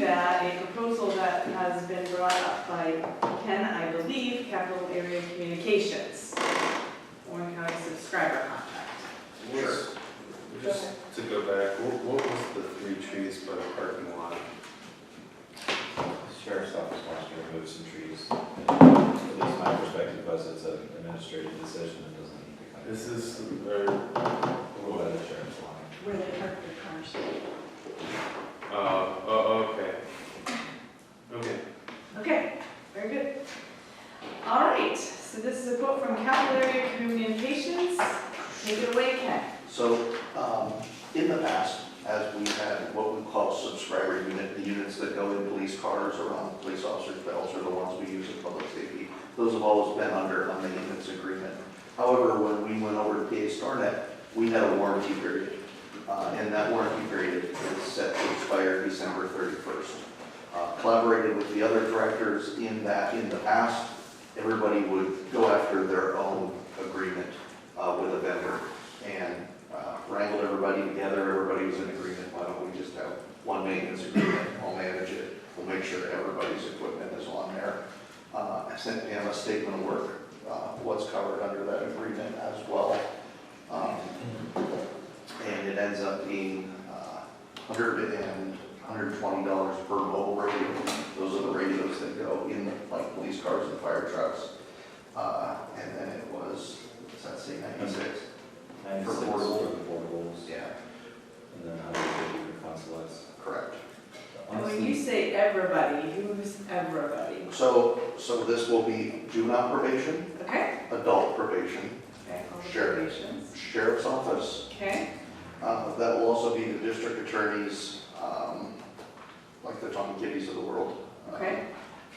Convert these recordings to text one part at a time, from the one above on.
that a proposal that has been brought up by Ken, I believe, Capital Area Communications, Warren County subscriber contract. What's- Just to go back, what, what was the three trees by the parking lot? Sheriff's office wants to remove some trees. At least my perspective was it's an administrative decision that doesn't need to come. This is, uh, or, Rule by the sheriff's line. where they park their cars. uh, oh, okay. Okay, Okay, very good. All right, so this is a quote from Capital Area Communications. Take it away, Ken. So, um, in the past, as we had what we call subscriber unit, the units that go in police cars or on police officers' bells are the ones we use in public safety. Those have always been under a maintenance agreement. However, when we went over to PA StarNet, we had a warranty period. Uh, and that warranty period is set to expire December thirty-first. Uh, collaborated with the other directors in that, in the past, everybody would go after their own agreement, uh, with a vendor and uh, wrangled everybody together, everybody was in agreement, why don't we just have one maintenance agreement, I'll manage it, we'll make sure everybody's equipment is on there. Uh, I sent Pam a statement of work, uh, what's covered under that agreement as well. Um, And it ends up being uh, 100 and $120 per mobile radio, those are the radios that go in like police cars and fire trucks. Uh, And then it was, does that say 96? Ninety-six for portable. the portables, Yeah, and then hundred fifty for consulates. correct. And When Oh, you say everybody, who's everybody? So, so this will be juvenile probation, Okay? adult probation, Okay. all the Sure. probations. sheriff's office. Okay, Uh, That will also be the district attorneys, um, like the Tom Giddies of the world. Uh, okay.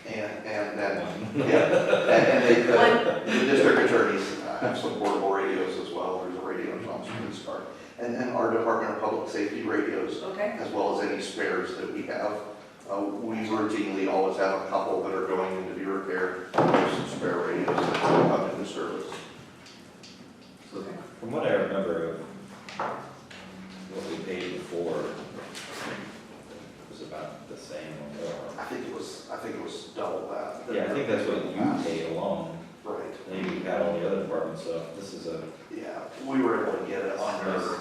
And, and then, yeah, and and they, the- the district attorneys uh, have some portable radios as well. There's a radio in Tom's police car. And then our Department of Public Safety radios Okay, as well as any spares that we have. Uh, We routinely always have a couple that are going into the repair, there's some spare radios that come into service. So From what I remember of what we paid before, it was about the same or more. I think it was, I think it was double that. Yeah, I think that's what you paid alone, Right, and then you got all the other departments, so this is a yeah, we were able to get it under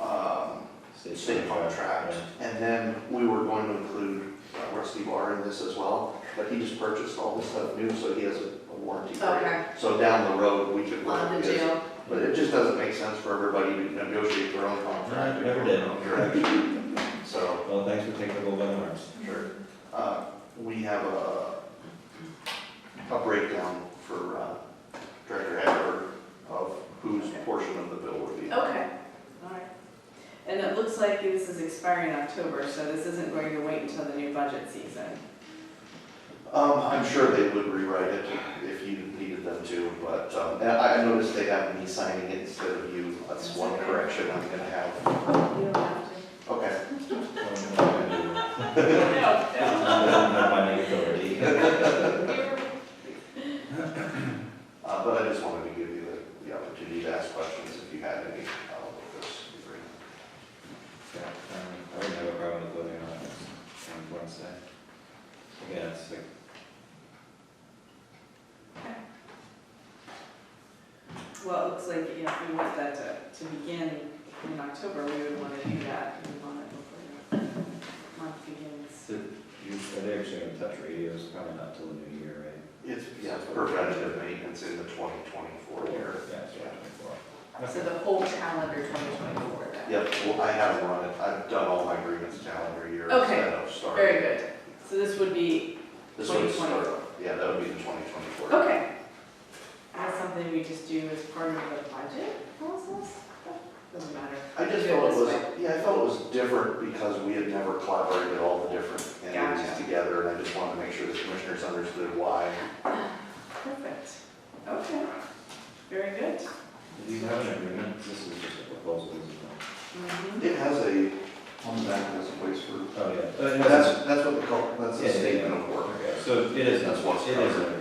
um, state. state contract. And then we were going to include uh, Rusty Barr in this as well, but he just purchased all this stuff new, so he has a a warranty. for it. Okay. So down the road, we could. work Love the his- jail. But it just doesn't make sense for everybody to negotiate their own No, contract. it never did. Correct. So, Well, thanks for taking the whole webinars. sure. Uh, We have a, a breakdown for uh, Director Haber of whose portion of the bill would be. Um, okay, all right. And it looks like this is expiring October, so this isn't going to wait until the new budget season. Um, I'm sure they would rewrite it if you needed them to, but, um, and I I noticed they have me signing it instead of you. That's one correction I'm gonna have. You don't have to. Okay. Not No, my name authority. Uh, But I just wanted to give you the- the opportunity to ask questions if you had any uh, with this agreement. Yeah, um, I wouldn't have a problem with voting on it on Wednesday. Again, it's like, Well, it looks like, yeah, if we want that to, to begin in October, we would want to do that. We want it before the month begins. so you, are they actually gonna touch radios? Probably not till the new year, right? It's, yeah, preventative maintenance in the 2024 year. Yeah, it's right before. So the whole calendar 2024 then? Yep, well, I have run it, I've done all my agreements calendar year Okay, instead of starting. Very good. So this would be, This would 2020. start, yeah, that would be the 2024. okay. That's something we just do as part of the budget process? Doesn't matter. I Do it just felt it this was, way. yeah, I felt it was different because we had never collaborated all the different entities Gotcha. together, and I just wanted to make sure the commissioners understood why. Perfect. Okay. Very good. Do you have an agreement? This is just a proposal, isn't it? Mhm. It has a, on the back, it has a place for, Oh, yeah. Uh, no, that's, that's what we call, that's Yeah, a yeah, yeah. statement of work. Okay, So it is, it That's what's is an covered.